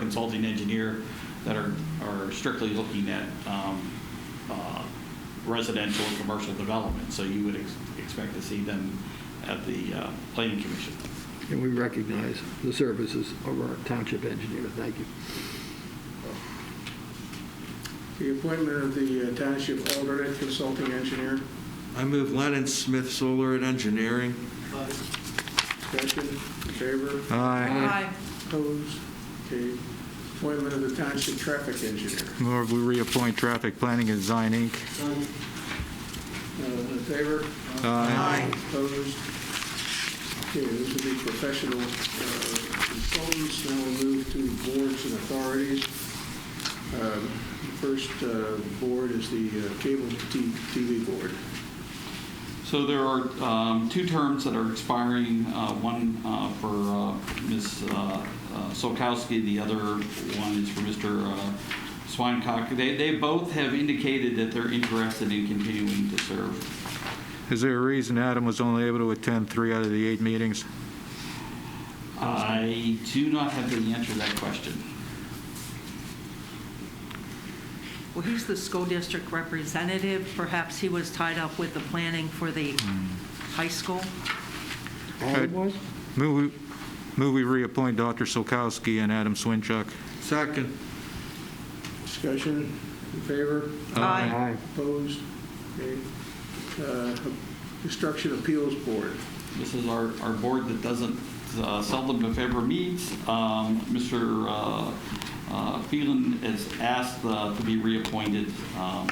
consulting engineer that are, are strictly looking at um, uh, residential and commercial development. So you would ex- expect to see them at the uh, planning commission. And we recognize the services of our township engineer. Thank you. The appointment of the uh, township alternate consulting engineer. I move Lennon Smith Solar and Engineering. Discussion, in favor, Aye. opposed, okay. Appointment of the township traffic engineer. Move we reappoint Traffic Planning and Design, Inc. Uh, In favor? Aye. Opposed? Okay, those will be professional uh, consultants. Now we'll move to boards and authorities. Um, the First uh, board is the uh, cable T- TV board. So there are um, two terms that are expiring, uh, one uh, for uh, Ms. uh, uh, Solkowski, the other one is for Mr. uh, Swinecock. They, they both have indicated that they're interested in continuing to serve. Is there a reason Adam was only able to attend three out of the eight meetings? I do not have the answer to that question. Well, he's the school district representative. Perhaps he was tied up with the planning for the high school. All it was? Move we- move we reappoint Dr. Solkowski and Adam Swinchuck. Second. Discussion, in favor? Aye. Opposed? Okay. Uh, Construction Appeals Board. This is our, our board that doesn't uh, seldom, if ever, meets. Um, Mr. uh, uh, Phelan is asked uh, to be reappointed um,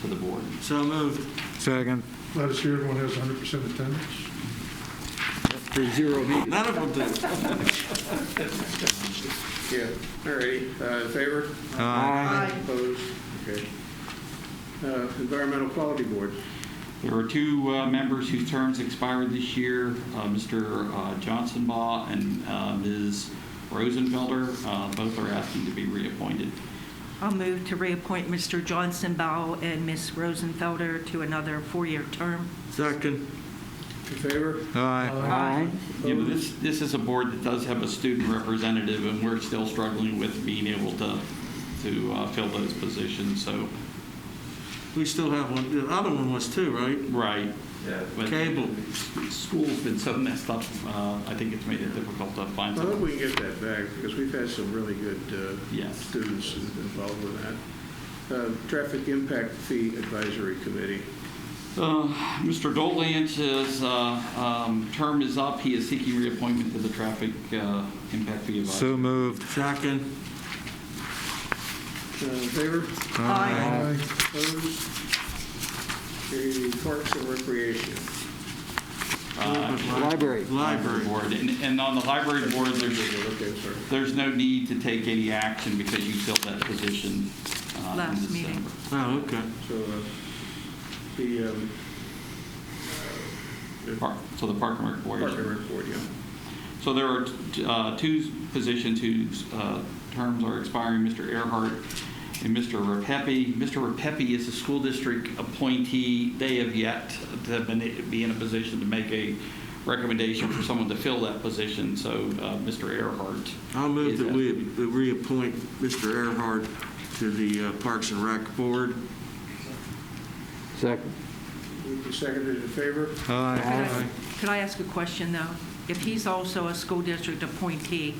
to the board. So moved. Second. Glad to see everyone has 100% attendance. For zero meetings. None of them did. Yeah. All righty, Uh, in favor? Aye. Opposed? Okay. Uh, Environmental Quality Board. There are two uh, members whose terms expired this year, uh, Mr. uh, Johnson Baugh and uh, Ms. Rosenfelder. Uh, Both are asking to be reappointed. I'll move to reappoint Mr. Johnson Bow and Ms. Rosenfelder to another four-year term. Second. In favor? Aye. Aye. You know, this, this is a board that does have a student representative, and we're still struggling with being able to, to uh, fill those positions, so, We still have one. The other one was two, right? right. But Cable. School's been so messed up, uh, I think it's made it difficult to I find hope someone. we can get that back, because we've had some really good uh, Yes. students involved with that. Uh, Traffic Impact Fee Advisory Committee. Uh, Mr. Dolan's, his uh, um, term is up. He is seeking reappointment to the Traffic uh, Impact Fee So Advisory. moved. Second. Uh, In favor? Aye. Opposed? Okay, Parks and Recreation. Uh, Library. Library. Board. And and on the library board, there's, Okay, sorry. there's no need to take any action because you filled that position uh, in Last meeting. December. Oh, okay. So uh, the um, uh, Park- So the Park and Rec Board. Park and Rec Board, yeah. So there are uh, two positions whose uh, terms are expiring, Mr. Earhart and Mr. Repepe. Mr. Repepe is a school district appointee. They have yet to been- be in a position to make a recommendation for someone to fill that position, so uh, Mr. Earhart. I'll move is that asking. we that reappoint Mr. Earhart to the uh, Parks and Rec Board. Second. Moved and seconded in favor? Aye. Could I- Could I ask a question, though? If he's also a school district appointee,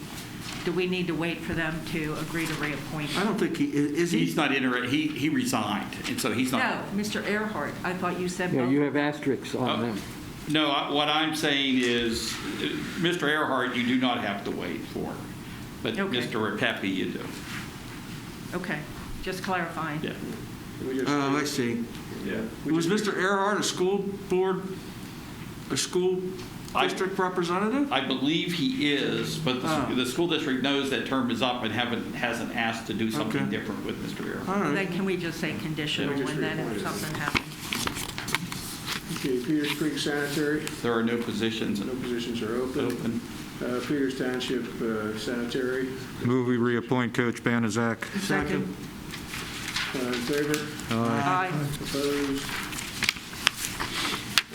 do we need to wait for them to agree to reappoint? I don't think he, i- is He's he? not inter, he, he resigned, and so he's No, not. Mr. Earhart, I thought you said Yeah, both. you have asterisks on Oh. them. No, I- what I'm saying is, uh, Mr. Earhart, you do not have to wait for, but Okay. Mr. Repepe, you do. Okay, just clarifying. Yeah. We just- Oh, I see. Yeah. we Was just- Mr. Earhart a school board, a school I- district representative? I believe he is, but the, Oh. the school district knows that term is up and haven't, hasn't asked to do something Okay. different with Mr. Earhart. All Then right. can we just say conditional Yeah, we just and then if reappointed. something happens? Okay, Peters Creek Sanitary, There are no positions no positions are open. open. Uh, Peters Township uh, Sanitary, Move we reappoint Coach Banazak. Second. uh, in favor? Aye. Opposed?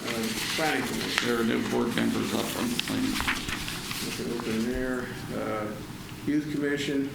Uh, Planning Commission, There are no board members up on the thing. we can open there. Uh, Youth Commission,